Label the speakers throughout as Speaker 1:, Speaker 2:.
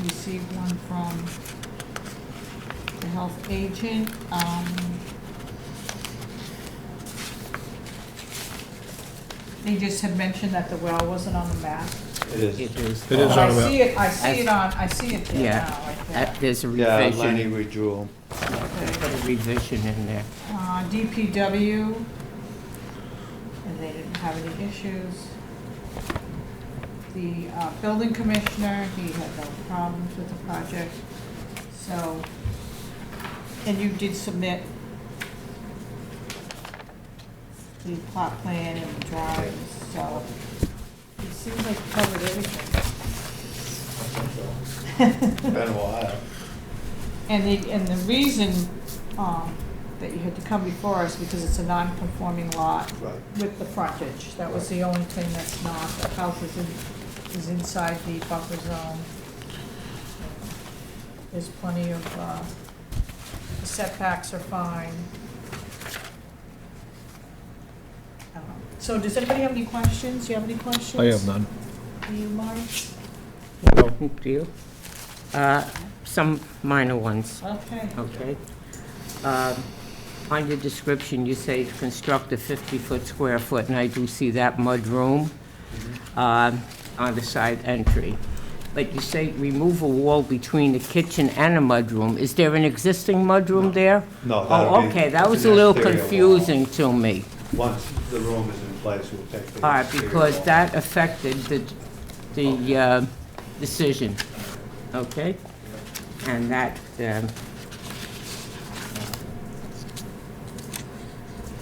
Speaker 1: received one from the health agent. Um, They just had mentioned that the well wasn't on the map.
Speaker 2: It is.
Speaker 3: It is.
Speaker 4: It is
Speaker 1: But
Speaker 4: on the
Speaker 1: I
Speaker 4: map.
Speaker 1: see it, I see it on,
Speaker 3: I've-
Speaker 1: I see it there
Speaker 3: Yeah,
Speaker 1: now, right
Speaker 3: that-
Speaker 1: there.
Speaker 3: Uh, there's a
Speaker 2: Yeah, Lenny
Speaker 3: revision.
Speaker 2: withdrew.
Speaker 1: Okay.
Speaker 3: Put a revision in there.
Speaker 1: Uh, DPW, and they didn't have any issues. The uh, building commissioner, he had no problems with the project, so, and you did submit the plot plan and the drawings, so it seems like you covered everything.
Speaker 2: Been a while.
Speaker 1: And the, and the reason, um, that you had to come before us, because it's a non-conforming lot
Speaker 2: Right.
Speaker 1: with the frontage, that was the only thing that's not, the house is in, is inside the buffer zone. There's plenty of, uh, the setbacks are fine. I don't know. Um, So does anybody have any questions? Do you have any questions?
Speaker 4: I have none.
Speaker 1: Do you, Mark?
Speaker 3: Do you? Uh, Some minor ones,
Speaker 1: Okay.
Speaker 3: okay? Um, On your description, you say to construct a 50-foot square foot, and I do see that mudroom um, on the side entry. But you say remove a wall between the kitchen and a mudroom. Is there an existing mudroom there?
Speaker 2: No, that'll
Speaker 3: Oh,
Speaker 2: be-
Speaker 3: okay, that was
Speaker 2: it's
Speaker 3: a
Speaker 2: an
Speaker 3: little
Speaker 2: exterior wall.
Speaker 3: confusing to me.
Speaker 2: Once the room is in place, we'll take the.
Speaker 3: All right,
Speaker 2: exterior
Speaker 3: because
Speaker 2: wall.
Speaker 3: that affected the, the uh, decision, okay? And that, um,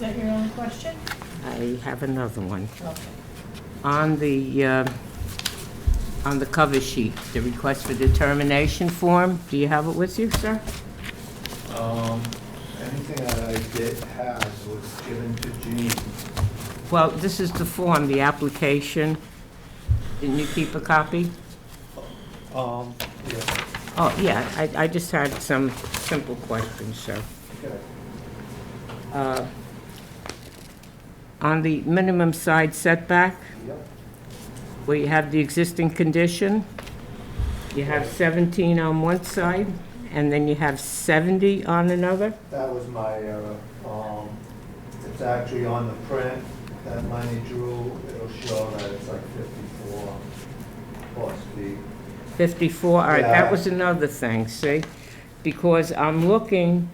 Speaker 1: Is that your own question?
Speaker 3: I have another one.
Speaker 1: Okay.
Speaker 3: On the, uh, on the cover sheet, the request for determination form, do you have it with you, sir?
Speaker 5: Um, anything that I did have was given to Jean.
Speaker 3: Well, this is the form, the application. Didn't you keep a copy?
Speaker 2: Um, yeah,
Speaker 3: Oh, yeah, I, I just had some simple questions, sir.
Speaker 5: Okay.
Speaker 3: Uh, On the minimum side setback,
Speaker 5: Yep.
Speaker 3: where you have the existing condition, you have 17 on one side, and then you have 70 on another?
Speaker 5: That was my error. Um, it's actually on the print that Lenny drew. It'll show that it's like fifty-four plus the,
Speaker 3: 54, all right, that
Speaker 5: Yeah.
Speaker 3: was another thing, see? Because I'm looking,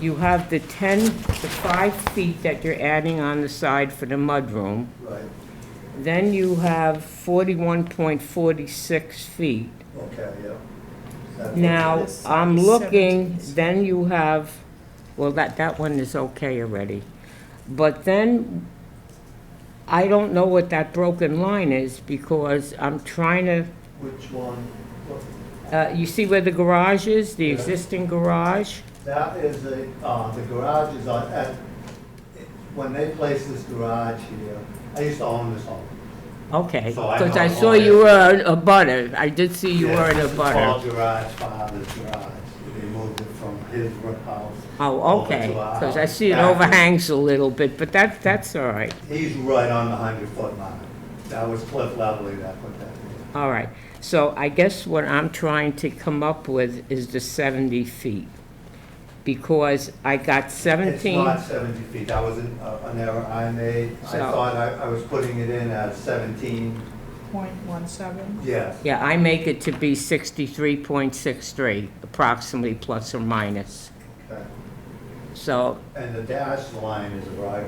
Speaker 3: you have the 10, the 5 feet that you're adding on the side for the mudroom,
Speaker 5: right,
Speaker 3: then you have 41.46 feet.
Speaker 5: okay, yeah. That's-
Speaker 3: Now,
Speaker 1: This
Speaker 3: I'm
Speaker 1: is
Speaker 3: looking,
Speaker 1: 17.
Speaker 3: then you have, well, that, that one is okay already. But then, I don't know what that broken line is because I'm trying to,
Speaker 5: Which one?
Speaker 3: uh, you see where the garage is, the
Speaker 5: Yeah.
Speaker 3: existing garage?
Speaker 5: That is a, uh, the garage is on, at, when they placed this garage here, I used to own this home.
Speaker 3: Okay,
Speaker 5: So I
Speaker 3: because
Speaker 5: know
Speaker 3: I
Speaker 5: all
Speaker 3: saw
Speaker 5: that.
Speaker 3: you were in a butter, I did see you
Speaker 5: Yeah,
Speaker 3: were in a
Speaker 5: it's all
Speaker 3: butter.
Speaker 5: garage, father's garage. They moved it from his house.
Speaker 3: Oh,
Speaker 5: over
Speaker 3: okay,
Speaker 5: to our
Speaker 3: because I
Speaker 5: house.
Speaker 3: see it
Speaker 5: Back-
Speaker 3: overhangs a little bit, but that, that's all right.
Speaker 5: He's right on the hundred foot line. That was Cliff Lovely that put that in.
Speaker 3: All right, so I guess what I'm trying to come up with is the 70 feet, because I got
Speaker 5: It's
Speaker 3: 17,
Speaker 5: not seventy feet, that was an uh, an error I made. I
Speaker 3: So-
Speaker 5: thought I, I was putting it in at seventeen,
Speaker 1: Point one seven?
Speaker 5: yes.
Speaker 3: yeah, I make it to be 63.63, approximately plus or minus.
Speaker 5: okay.
Speaker 3: So,
Speaker 5: And the dashed line is right,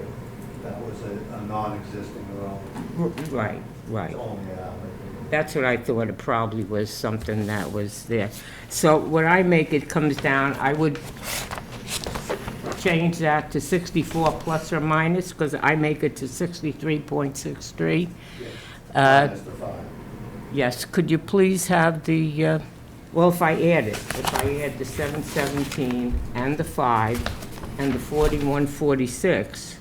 Speaker 5: that was a, a non-existing road,
Speaker 3: r- right,
Speaker 5: it's
Speaker 3: right.
Speaker 5: only an alley.
Speaker 3: That's what I thought, it probably was something that was there. So when I make it comes down, I would change that to 64 plus or minus, because I make it to 63.63.
Speaker 5: Yes.
Speaker 3: Uh,
Speaker 5: That's the five.
Speaker 3: Yes, could you please have the, uh, well, if I add it, if I add the 717 and the 5 and the 4146,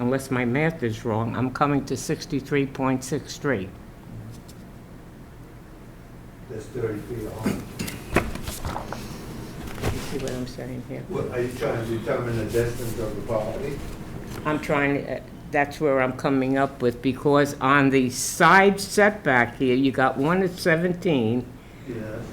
Speaker 3: unless my math is wrong, I'm coming to 63.63.
Speaker 5: There's thirty feet on.
Speaker 3: You see what I'm saying here?
Speaker 5: What, are you trying to determine the distance of the property?
Speaker 3: I'm trying, uh, that's where I'm coming up with, because on the side setback here, you got one at 17,
Speaker 5: Yes.